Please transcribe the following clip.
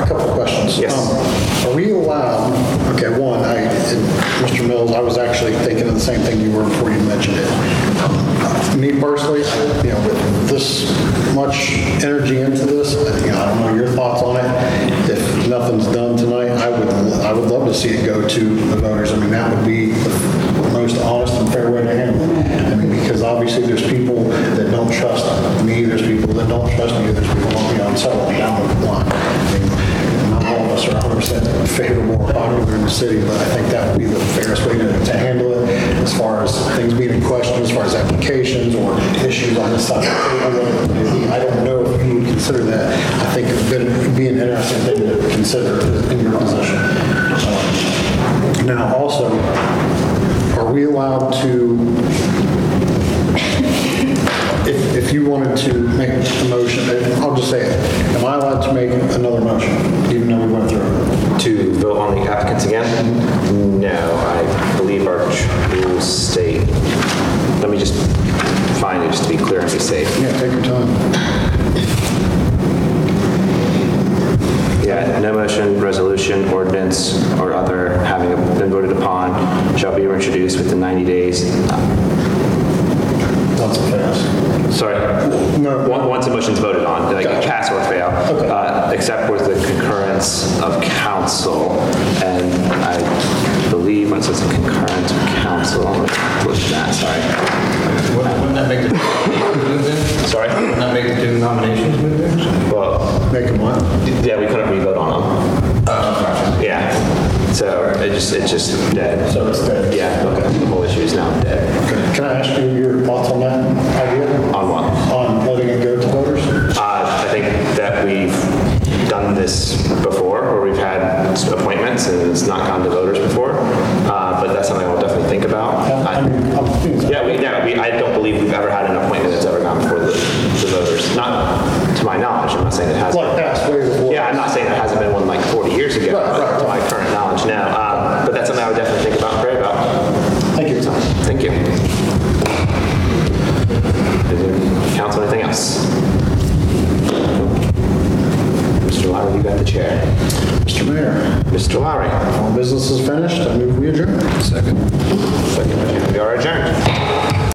Um, same thing you were before you mentioned it. Uh, Me personally, I- you know, with this much energy into this, I- you know, I don't know your thoughts on it. If nothing's done tonight, I would, I would love to see it go to the voters. I mean, that would be the most honest and fair way to handle it. I mean, because obviously there's people that don't trust me, there's people that don't trust me, there's people on the outside, down the line. I mean, Not all of us are 100% favorable or popular in the city, but I think that would be the fairest way to to handle it as far as things being in question, as far as applications or issues on this side of the table. I don't know if you would consider that. I think it would be an interesting thing to consider in your position. Um, Now, also, are we allowed to if, if you wanted to make a motion, eh, I'll just say it, am I allowed to make another motion, even though we went through it? To vote on the applicants again? No, I believe our rules state, let me just find it, just to be clear and be safe. Yeah, take your time. Yeah, no motion, resolution, ordinance, or other having been voted upon shall be introduced within 90 days. That's a pass. Sorry. No. Once once a motion's voted on, like Gotcha. pass or fail, Okay. uh, except with the concurrence of council. And I believe when it says concurrence of council, I'm going to push that, sorry. Wouldn't wouldn't that make the nominations move in? Sorry? Wouldn't that make the two nominations move in? Well, Make a what? yeah, we couldn't re-vote on them. Yeah. So it just, it's just dead. Oh, So it's dead. Yeah, okay. The whole issue is now dead. Okay. Can I ask you your thoughts on that idea? On what? On letting it go to voters? Uh, I think that we've done this before, where we've had appointments and it's not gone to voters before, Uh, but that's something I'll definitely think about. I I- mean, I'm thinking- Yeah, we, no, we, I don't believe we've ever had an appointment that's ever gone before the the voters, not to my knowledge, I'm not saying it hasn't. Like past ways of working. Yeah, I'm not saying there hasn't been one like 40 years ago, Right, right, but to my current knowledge now, Uh, but that's something I would definitely think about and pray about. Thank you. Thank you. Does Council, anything else? Mr. Lowry, you got the chair. Mr. Mayor, Mr. Lowry, all business is finished, I move we adjourn. second, we are adjourned.